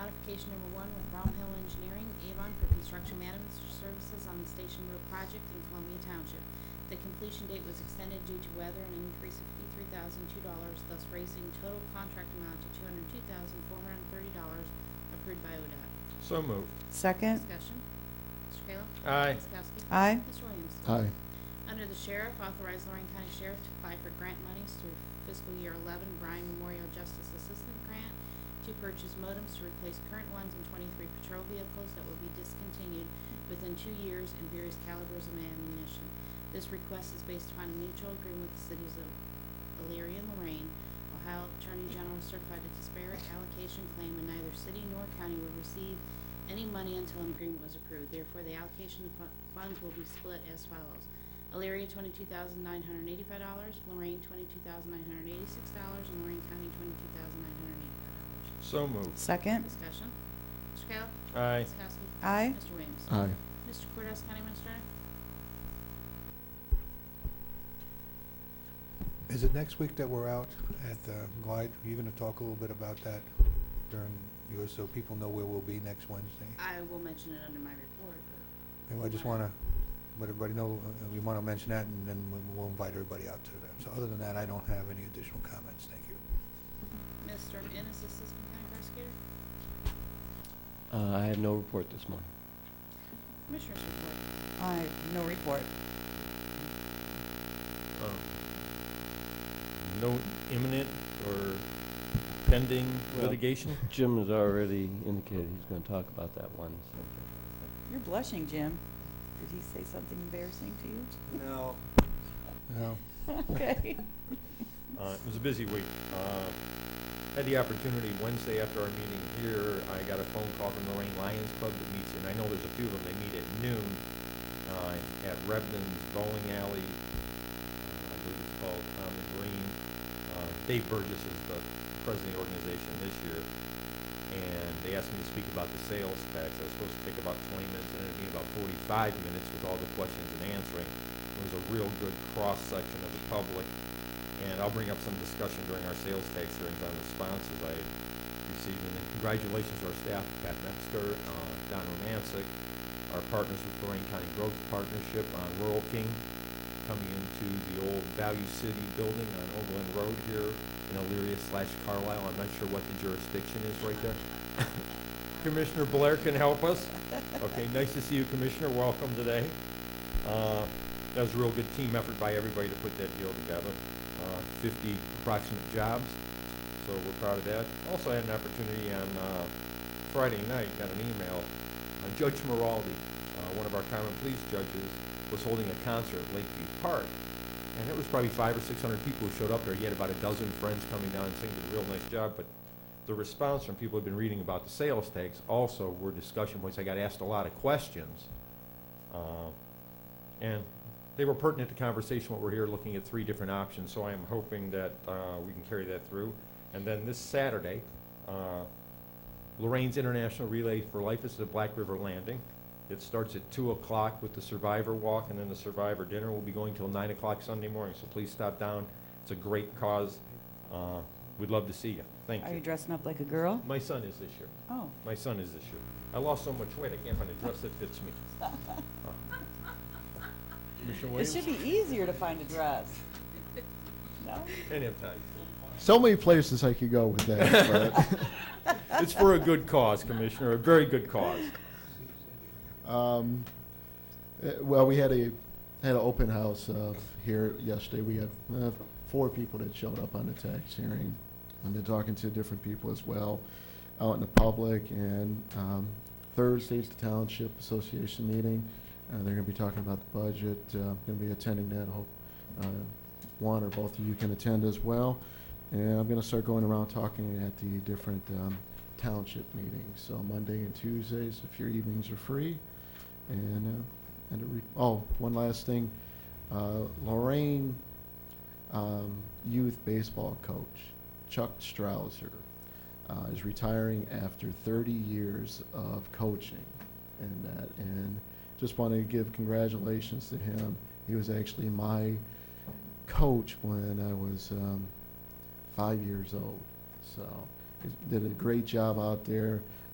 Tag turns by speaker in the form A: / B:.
A: application number one with Brown Hill Engineering, Avon, for construction management services on the Station Road project in Columbia Township. The completion date was extended due to weather and an increase of fifty-three thousand two dollars, thus raising total contract amount to two hundred two thousand four hundred thirty dollars approved by ODOT.
B: So moved.
C: second,
A: Discussion. Mr. Kayla?
B: Aye.
A: Ms. Kowski?
C: Aye.
A: Mr. Williams?
D: aye,
A: Under the sheriff, authorize Lorraine County Sheriff to apply for grant monies through fiscal year eleven Bryan Memorial Justice Assistant Grant to purchase modems to replace current ones and twenty-three patrol vehicles that will be discontinued within two years and various calibers of ammunition. This request is based upon a mutual agreement with the cities of Elyria and Lorraine. Ohio Attorney General certified a disparate allocation claim and neither city nor county will receive any money until an agreement was approved. Therefore, the allocation of fu- funds will be split as follows. Elyria twenty-two thousand nine hundred and eighty-five dollars, Lorraine twenty-two thousand nine hundred and eighty-six dollars, and Lorraine County twenty-two thousand nine hundred and eighty-five dollars.
B: So moved.
C: second,
A: Discussion. Mr. Kayla?
B: Aye.
A: Ms. Kowski?
C: aye,
A: Mr. Williams?
D: aye.
A: Mr. Cordes, County Administrator?
E: Is it next week that we're out at the Glide? Are you going to talk a little bit about that during yours, so people know where we'll be next Wednesday?
A: I will mention it under my report, but
E: And I just want to let everybody know, uh, we want to mention that, and then we- we'll invite everybody out to that. So other than that, I don't have any additional comments, thank you.
A: Mr. Ennis, Assistant County Prosecutor?
F: Uh, I have no report this morning.
A: Commissioners report.
C: aye, no report.
B: Um, No imminent or pending
F: Well-
B: litigation?
F: Jim has already indicated he's going to talk about that one subject.
C: You're blushing, Jim. Did he say something embarrassing to you?
E: No. No.
C: Okay.
B: Uh, It was a busy week. Uh, Had the opportunity Wednesday after our meeting here, I got a phone call from the Lorraine Lions Club that meets, and I know there's a few of them, they meet at noon uh, at Rebden's Bowling Alley, uh, I believe it's called, on the green. Uh, Dave Burgess is the president of the organization this year, and they asked me to speak about the sales tax. I was supposed to take about twenty minutes, and it'd be about forty-five minutes with all the questions and answering. It was a real good cross-section of the public, and I'll bring up some discussion during our sales tax hearings on responses I received. And then congratulations to our staff, Pat Metzger, uh, Don Romancic, our partners with Lorraine County Growth Partnership on Rural King, coming into the old Value City building on Overland Road here in Elyria slash Carlisle. I'm not sure what the jurisdiction is right there. Commissioner Blair can help us. Okay, nice to see you, Commissioner. Welcome today. Uh, That was a real good team effort by everybody to put that deal together. Uh, 50 approximate jobs, so we're proud of that. Also had an opportunity on uh, Friday night, got an email, uh, Judge Maraldi, uh, one of our common police judges, was holding a concert at Lakeview Park. And there was probably five or 600 people who showed up there. He had about a dozen friends coming down and singing, did a real nice job. But the response from people who've been reading about the sales tax also were discussion points. I got asked a lot of questions. uh, And they were pertinent to conversation, what we're here looking at three different options. So I am hoping that uh, we can carry that through. And then this Saturday, uh, Lorraine's International Relay for Life is at Black River Landing. It starts at two o'clock with the survivor walk, and then the survivor dinner will be going till nine o'clock Sunday morning. So please stop down. It's a great cause. Uh, We'd love to see you. Thank
C: Are you
B: you.
C: dressing up like a girl?
B: My son is this year.
C: Oh,
B: My son is this year. I lost so much weight, I can't find a dress that fits me. Commissioner
C: it
B: Williams?
C: should be easier to find a dress. No?
B: Any of that.
D: So many places I could go with that, but.
B: It's for a good cause, Commissioner, a very good cause.
D: Um, eh, well, we had a had an open house uh, here yesterday. We had uh, four people that showed up on the tax hearing. I've been talking to different people as well, out in the public. And um, Thursday's the township association meeting. Uh, they're going to be talking about the budget. Uh, I'm going to be attending that. I hope uh, one or both of you can attend as well. And I'm going to start going around talking at the different um, township meetings. So Monday and Tuesdays, if your evenings are free. And, uh, and, a re- oh, one last thing. Uh, Lorraine, um, youth baseball coach, Chuck Strauser, uh, is retiring after thirty years of coaching and that. And just want to give congratulations to him. He was actually my coach when I was, um, five years old. So, he did a great job out there.